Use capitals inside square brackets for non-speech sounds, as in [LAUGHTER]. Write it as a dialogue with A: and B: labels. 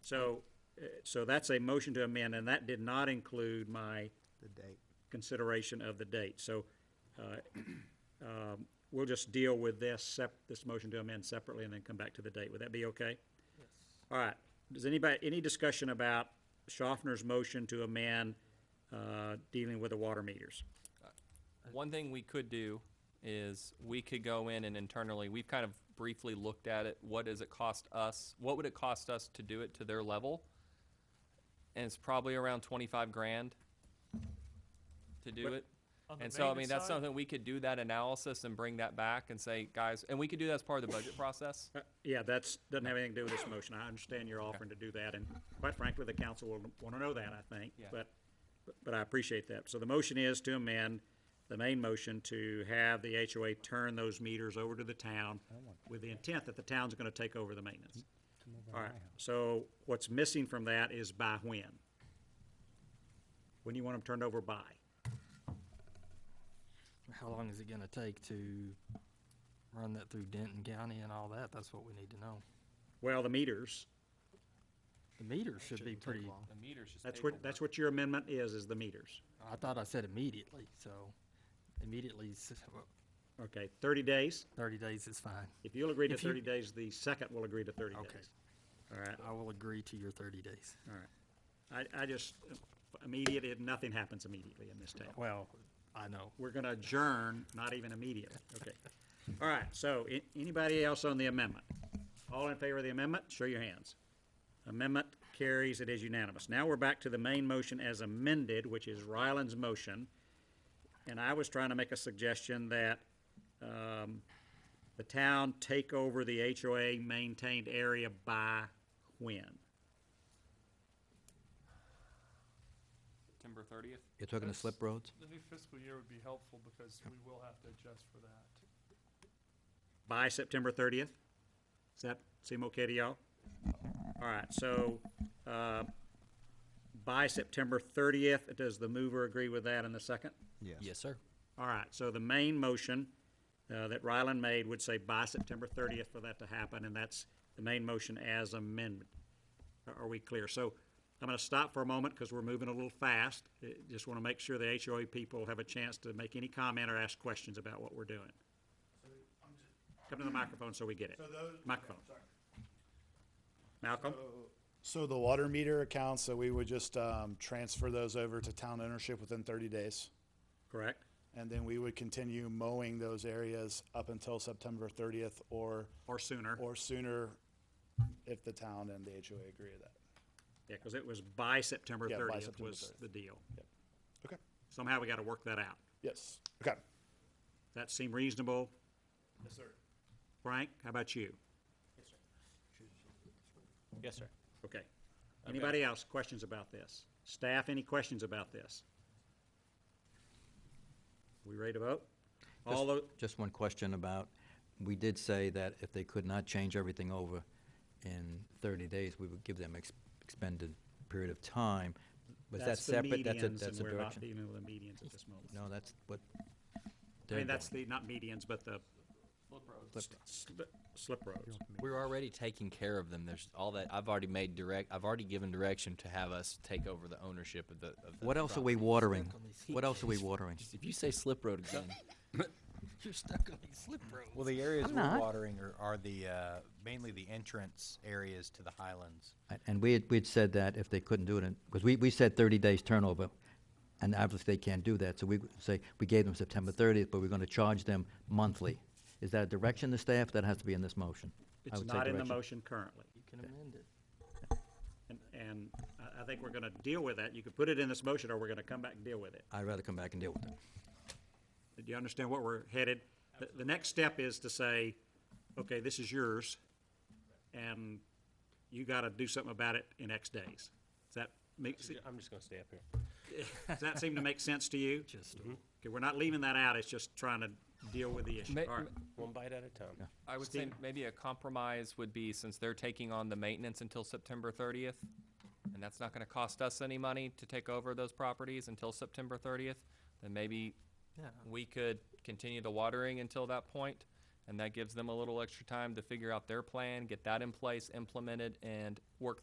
A: So, uh, so that's a motion to amend, and that did not include my
B: the date.
A: consideration of the date. So uh, um, we'll just deal with this, sep- this motion to amend separately and then come back to the date. Would that be okay? All right. Does anybody, any discussion about Schaffner's motion to amend uh, dealing with the water meters?
C: Uh, One thing we could do is we could go in and internally, we've kind of briefly looked at it. What does it cost us? What would it cost us to do it to their level? And it's probably around twenty-five grand to do it.
D: On the
C: And so, I mean,
D: maintenance
C: that's
D: side?
C: something we could do that analysis and bring that back and say, guys, and we could do that as part of the budget process.
A: Uh, Yeah, that's, doesn't have anything to do with this motion. I understand you're offering to do that, and quite frankly, the council will want to know that, I think.
C: Yeah.
A: But, but I appreciate that. So the motion is to amend the main motion to have the HOA turn those meters over to the town with the intent that the town's going to take over the maintenance. All right, so what's missing from that is by when? When do you want them turned over by?
E: How long is it gonna take to run that through Denton County and all that? That's what we need to know.
A: Well, the meters,
E: The meters should be
B: Shouldn't take
E: pretty,
B: long.
C: The meters just
A: that's what, that's what your amendment is, is the meters.
E: I thought I said immediately, so immediately, s- well,
A: Okay, thirty days?
E: thirty days is fine.
A: If you'll agree to
E: If you-
A: thirty days, the second will agree to thirty
E: Okay.
A: days. All right,
E: I will agree to your thirty days.
A: all right. I, I just, immediate, it- nothing happens immediately in this town.
E: Well, I know.
A: We're gonna adjourn, not even immediately, okay. All right, so, a- anybody else on the amendment? All in favor of the amendment, show your hands. Amendment carries, it is unanimous. Now we're back to the main motion as amended, which is Ryland's motion. And I was trying to make a suggestion that, um, the town take over the HOA maintained area by when?
C: September thirtieth?
F: You're talking the slip roads?
D: The new fiscal year would be helpful because we will have to adjust for that.
A: by September thirtieth? Does that seem okay to y'all? All right, so, uh, by September thirtieth, does the mover agree with that in the second?
F: Yes, sir.
A: All right, so the main motion, uh, that Ryland made would say by September thirtieth for that to happen, and that's the main motion as amendment. Are- Are we clear? So I'm gonna stop for a moment because we're moving a little fast. Uh, Just wanna make sure the HOA people have a chance to make any comment or ask questions about what we're doing. Come to the microphone so we get it. Microphone. Malcolm?
G: So the water meter accounts, so we would just um, transfer those over to town ownership within 30 days.
A: Correct.
G: And then we would continue mowing those areas up until September 30th or,
A: Or sooner.
G: or sooner if the town and the HOA agree to that.
A: Yeah, because it was by September
G: Yeah, by
A: thirtieth
G: September
A: was
G: 30th.
A: the deal.
G: Okay.
A: Somehow we got to work that out.
G: Yes. Okay.
A: That seem reasonable?
G: Yes, sir.
A: Frank, how about you?
B: Yes, sir.
A: Okay. Anybody else, questions about this? Staff, any questions about this? We ready to vote? All tho-
F: Just one question about, we did say that if they could not change everything over in 30 days, we would give them ex- expended period of time. Was that
A: that's the
F: separate? That's a,
A: medians,
F: that's
A: and
F: a
A: we're not
F: direction?
A: dealing with the medians at this moment.
F: No, that's what
A: I
F: they're
A: mean, that's
F: doing.
A: the, not medians, but the sli- slip roads.
H: We're already taking care of them. There's all that. I've already made direct. I've already given direction to have us take over the ownership of the. Of the
F: What else are we watering? What else are we watering?
H: If you say slip road again,
E: You're stuck on these slip roads.
I: Well, the areas
F: I'm
I: we're
F: not.
I: watering are, are the, uh, mainly the entrance areas to the highlands.
F: A- And we had, we'd said that if they couldn't do it, because we, we said 30 days turnover, and obviously they can't do that, so we would say, we gave them September 30th, but we're going to charge them monthly. Is that a direction to staff? That has to be in this motion. I
A: It's
F: would say
A: not in the
F: direction.
A: motion currently.
E: You can amend it.
A: And, and I, I think we're gonna deal with that. You could put it in this motion, or we're gonna come back and deal with it.
F: I'd rather come back and deal with it.
A: Do you understand where we're headed? The, the next step is to say, okay, this is yours, and you gotta do something about it in X days. Does that make, se-
J: I'm just gonna stay up here.
A: [LAUGHS] does that seem to make sense to you?
E: Just,
A: Okay, we're not leaving that out, it's just trying to deal with the issue.
C: Ma-
A: All right,
J: One bite at a time.
C: I would say maybe a compromise would be, since they're taking on the maintenance until September thirtieth, and that's not gonna cost us any money to take over those properties until September thirtieth, then maybe
E: yeah.
C: we could continue the watering until that point, and that gives them a little extra time to figure out their plan, get that in place, implemented, and work